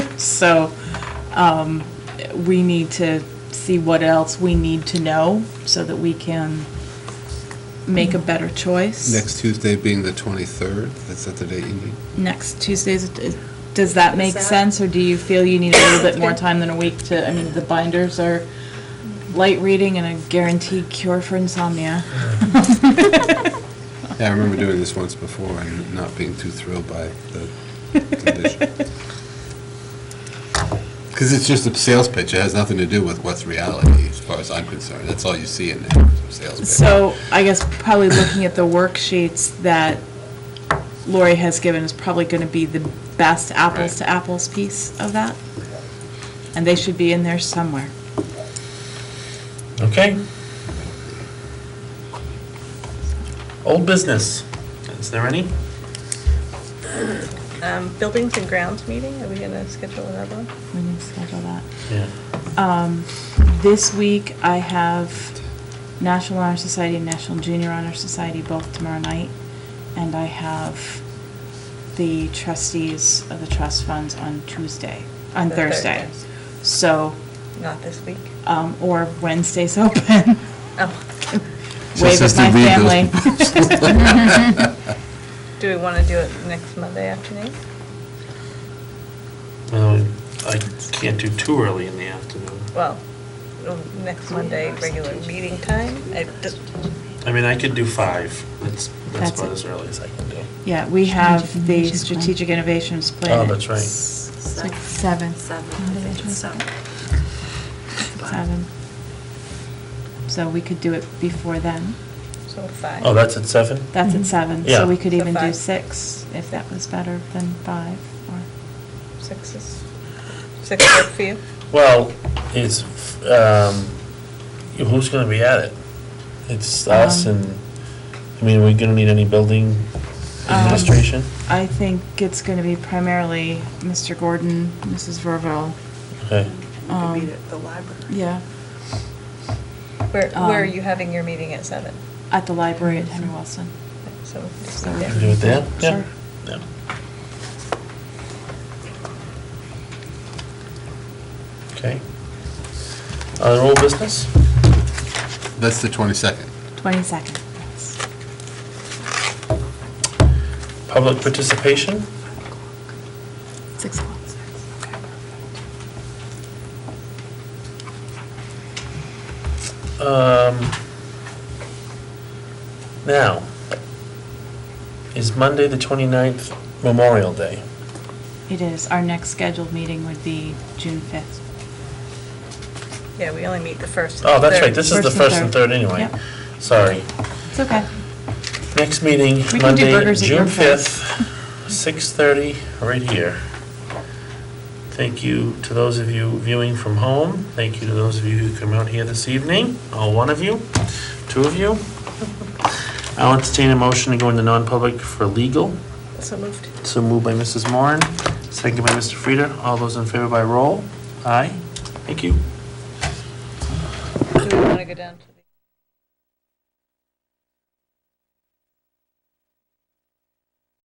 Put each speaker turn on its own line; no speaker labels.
So um, we need to see what else we need to know so that we can make a better choice.
Next Tuesday being the 23rd, that's not the date you need.
Next Tuesday's, does that make
that-
sense, or do you feel you need a little bit more time than a week to, I mean, the binders are light reading and a guaranteed cure for insomnia.
Yeah, I remember doing this once before and not being too thrilled by the condition. Because it's just a sales pitch, it has nothing to do with what's reality, as far as I'm concerned. That's all you see in there, sales pitch.
So I guess probably looking at the worksheets that Lori has given is probably going to be the best apples to apples piece of that. And they should be in there somewhere.
Okay. Old business. Is there any?
Um, Buildings and grounds meeting, are we going to schedule another one?
We need to schedule that.
Yeah.
Um, This week, I have National Honor Society and National Junior Honor Society both tomorrow night, and I have the trustees of the trust funds on Tuesday, on
The
Thursday.
Thursdays.
So,
Not this week?
um, or Wednesday's open.
Oh,
Wave at my family.
do we want to do it next Monday afternoon?
Um, I can't do too early in the afternoon.
Well, um, next Monday, regular meeting time? I just-
I mean, I could do five. That's,
That's
that's about
it.
as early as I can do.
Yeah, we have the strategic
Strategic
innovations plan.
Oh, that's right.
It's
It's like seven. Monday, Tuesday.
Seven. So we could do it before then.
So five.
Oh, that's at seven?
That's at
Mhm.
seven,
Yeah.
Mm-hmm. so we could
So
even do
five.
six, if that was better than five, or,
Six is, six work for you?
Well, it's, um, who's gonna be at it? It's us
Um,
and, I mean, are we gonna need any building
um,
administration?
I think it's gonna be primarily Mr. Gordon, Mrs. Verville.
Okay,
um,
the library.
Yeah,
Where, where are
Um,
you having your meeting at seven?
at the library at Henry Wilson.
So we can just
So
do
we
Can we do
that.
it there? Yeah.
Sure.
Yeah. Okay. Other old business?
That's the 22nd.
Twenty-second.
Public participation?
Six o'clock.
Um, now, is Monday, the 29th Memorial Day?
It is, our next scheduled meeting would be June fifth.
Yeah, we only meet the first. and
Oh, that's right,
third.
this is the
First and
first and
third.
third anyway.
Yep.
Sorry.
It's okay.
Next meeting,
can do
Monday,
burgers at your
June
place.
5th, 6:30, right here. Thank you to those of you viewing from home. Thank you to those of you who come out here this evening, all one of you, two of you. I'll entertain a motion to go into non-public for legal.
So moved.
So moved by Mrs. Moran, second by Mr. Frieda. All those in favor by roll? Aye. Thank you.
Do we want to go down to?